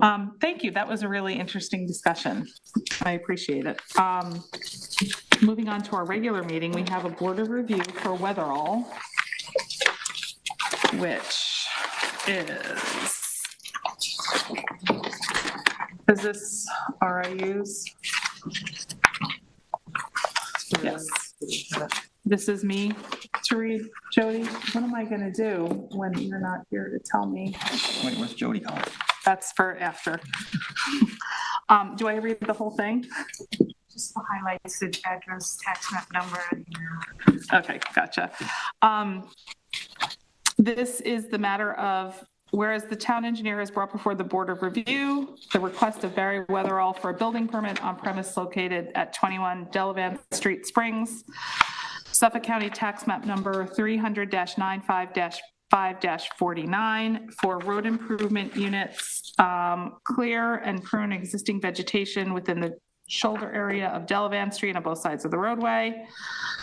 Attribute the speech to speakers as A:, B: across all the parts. A: Um, thank you. That was a really interesting discussion. I appreciate it. Um, moving on to our regular meeting, we have a board of review for Weatherall, which is is this RIUs? Yes. This is me to read. Jody, what am I gonna do when you're not here to tell me?
B: Wait, what's Jody calling?
A: That's for after. Um, do I read the whole thing?
C: Just the highlights, the address, tax map number, and uh, your
A: Okay, gotcha. Um, this is the matter of, whereas the town engineer has brought before the Board of Review the request of Barry Weatherall for a building permit on premise located at 21 Delavan Street Springs, Suffolk County Tax Map Number 300-95-5-49 for road improvement units, um, clear and prune existing vegetation within the shoulder area of Delavan Street on both sides of the roadway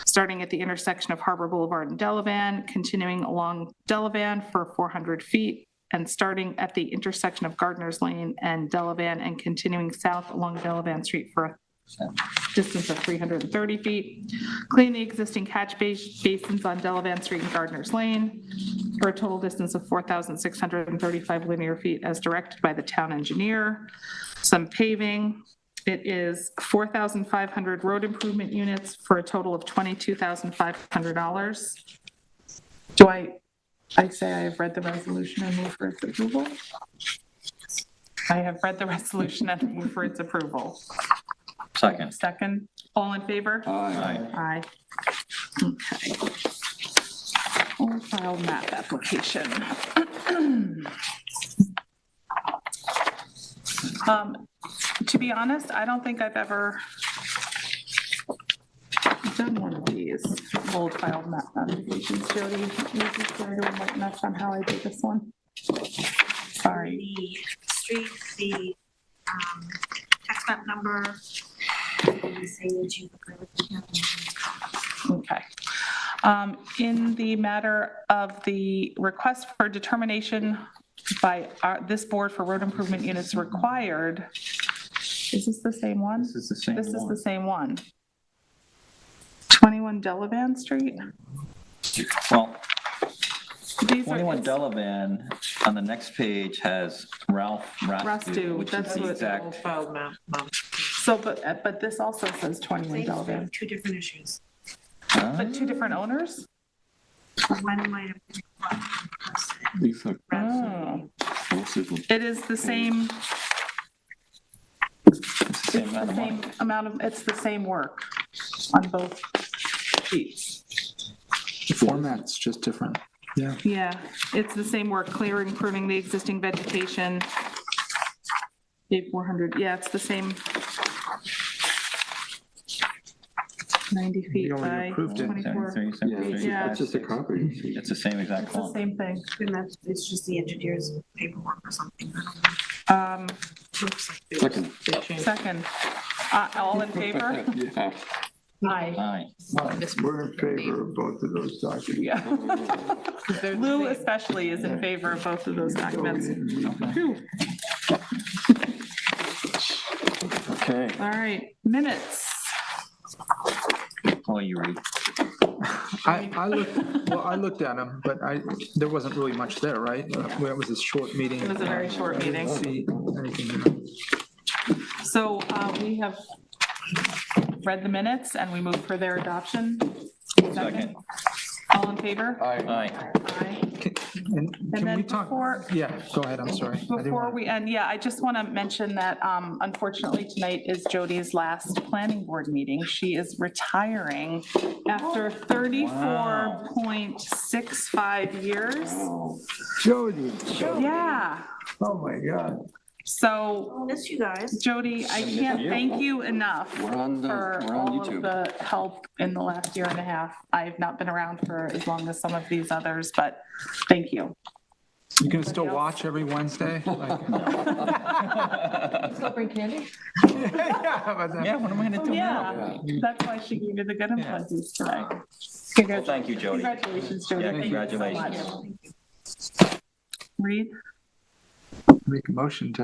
A: starting at the intersection of Harbor Boulevard and Delavan, continuing along Delavan for 400 feet, and starting at the intersection of Gardner's Lane and Delavan, and continuing south along Delavan Street for a distance of 330 feet. Clean the existing catch bas- basins on Delavan Street and Gardner's Lane for a total distance of 4,635 linear feet as directed by the town engineer. Some paving, it is four thousand five hundred road improvement units for a total of twenty-two thousand five hundred dollars. Do I, I say I have read the resolution and move for its approval? I have read the resolution and move for its approval.
B: Second.
A: Second, all in favor? Aye.
B: Aye.
A: Okay. Or file map application. Um, To be honest, I don't think I've ever done one of these old file map applications, Jody. You're just going to enlighten us on how I did this one? Sorry.
C: the street, the um, tax map number. and Say that you.
A: Okay. Um, In the matter of the request for determination by our- this board for road improvement units required, is this the same one?
B: This is the same
A: This is the
B: one.
A: same one. 21 Delavan Street?
B: Well,
A: These are-
B: 21 Delavan, on the next page, has Ralph
A: Rastu,
B: Rastu, which
A: that's
B: is
A: what-
B: the exact,
D: Filed map, map.
A: So, but, uh, but this also says 21 Delavan.
C: Two different issues.
B: Huh?
A: But two different owners?
C: One might have. been requested.
E: These are
A: Oh,
E: possible.
A: It is the same,
B: it's the same
A: it's
B: amount
A: the
B: of money.
A: same amount of, it's the same work on both sheets.
F: The format's just different. Yeah.
A: Yeah, it's the same work, clearing, pruning the existing vegetation. Day 400, yeah, it's the same. 90 feet
F: We already
A: by
F: approved it.
A: 24.
B: 73, 73,
F: Yeah, it's just a copy.
B: It's the same exact
A: It's the
B: one.
A: same thing.
C: And that's, it's just the engineer's paperwork or something. I don't know.
A: Um,
C: Looks like it.
E: Second.
D: They changed.
A: Second, uh, all in favor?
E: Yeah.
A: Aye.
B: Aye.
G: We're in favor of both of those documents.
A: Yeah.
D: They're the
A: Lou
D: same.
A: especially is in favor of both of those
G: So we
A: documents.
G: didn't read them.
F: Okay.
A: All right, minutes.
B: Oh, you read.
F: I, I looked, well, I looked at them, but I, there wasn't really much there, right? Where it was a short meeting.
A: It was a very short
F: I didn't
A: meeting.
F: See anything.
A: So uh, we have read the minutes and we move for their adoption.
B: Second.
A: All in favor?
B: Aye.
A: Aye.
F: And can
A: then
F: we talk?
A: before-
F: Yeah, go ahead, I'm sorry. I didn't
A: Before
F: wanna-
A: we end, yeah, I just want to mention that um, unfortunately tonight is Jody's last planning board meeting. She is retiring
F: Oh.
A: after 34.65 years.
G: Oh, Jody,
A: Yeah,
G: oh my God.
A: so
C: Miss you guys.
A: Jody, I can't thank you enough
E: We're on the,
A: for
E: we're on
A: all of
E: YouTube.
A: the help in the last year and a half. I've not been around for as long as some of these others, but thank you.
F: You can still watch every Wednesday? like-
B: Yeah,
F: Yeah, but then-
B: what am I gonna do now?
A: Oh, Yeah, that's why she gave you the good
F: Yeah.
A: impressions today.
B: Well, thank you, Jody.
A: Congratulations, Jody.
B: Yeah,
A: Thank you so much.
B: congratulations.
A: Reed?
F: Make a motion to